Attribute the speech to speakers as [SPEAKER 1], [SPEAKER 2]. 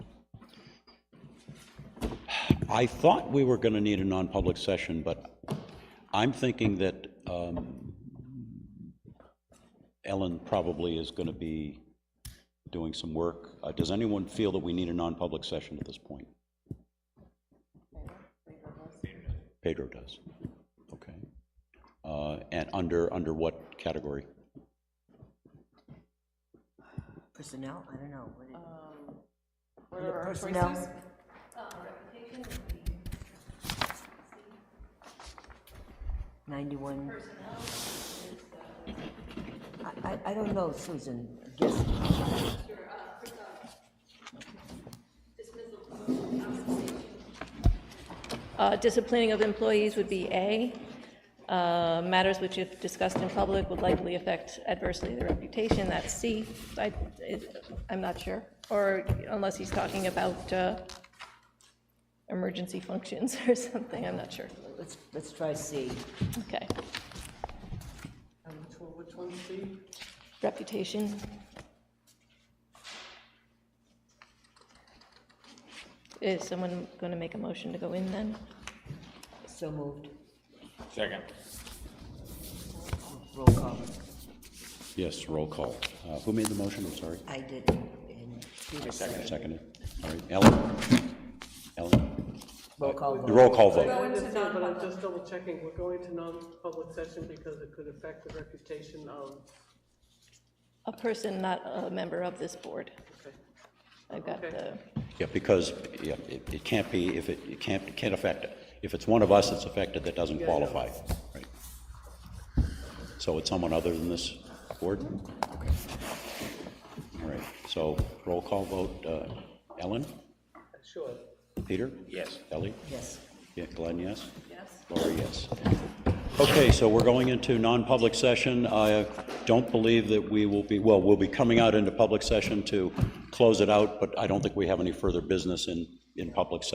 [SPEAKER 1] I thought we were going to need a non-public session, but I'm thinking that um, Ellen probably is going to be doing some work. Uh, Does anyone feel that we need a non-public session at this point? Pedro does. Okay. Uh, And under, under what category?
[SPEAKER 2] Personnel, I don't know. what it-
[SPEAKER 3] What are our
[SPEAKER 2] Personnel.
[SPEAKER 3] choices?
[SPEAKER 2] Ninety-one. I- I, I don't know, Susan, guess,
[SPEAKER 4] Uh, Disciplining of employees would be A. Uh, Matters which if discussed in public would likely affect adversely their reputation, that's C. I, it- I'm not sure, or unless he's talking about uh, emergency functions or something, I'm not sure.
[SPEAKER 2] let's, let's try C.
[SPEAKER 4] Okay,
[SPEAKER 3] And which one, which one's C?
[SPEAKER 4] reputation. Is someone going to make a motion to go in then?
[SPEAKER 2] So moved.
[SPEAKER 5] Second.
[SPEAKER 2] Roll call.
[SPEAKER 1] Yes, roll call. Uh, Who made the motion? I'm sorry.
[SPEAKER 2] I did, and Peter seconded.
[SPEAKER 1] Seconded. All right, Ellen? Ellen?
[SPEAKER 2] Roll call
[SPEAKER 1] The
[SPEAKER 2] vote.
[SPEAKER 1] roll call
[SPEAKER 3] I
[SPEAKER 1] vote.
[SPEAKER 3] understand, but I'm just double checking. We're going to non-public session because it could affect the reputation of,
[SPEAKER 4] A person not a member of this board.
[SPEAKER 3] okay.
[SPEAKER 4] I've got the,
[SPEAKER 3] Okay.
[SPEAKER 1] Yeah, because, yeah, it it can't be, if it, it can't, it can't affect it. If it's one of us that's affected, that doesn't qualify, right? So it's someone other than this board? All right, so roll call vote, uh, Ellen?
[SPEAKER 3] Sure.
[SPEAKER 1] Peter?
[SPEAKER 5] Yes.
[SPEAKER 1] Ellie?
[SPEAKER 2] Yes.
[SPEAKER 1] Yeah, Glenn, yes? Yes. Laura, yes. Okay, so we're going into non-public session. I don't believe that we will be, well, we'll be coming out into public session to close it out, but I don't think we have any further business in, in public session.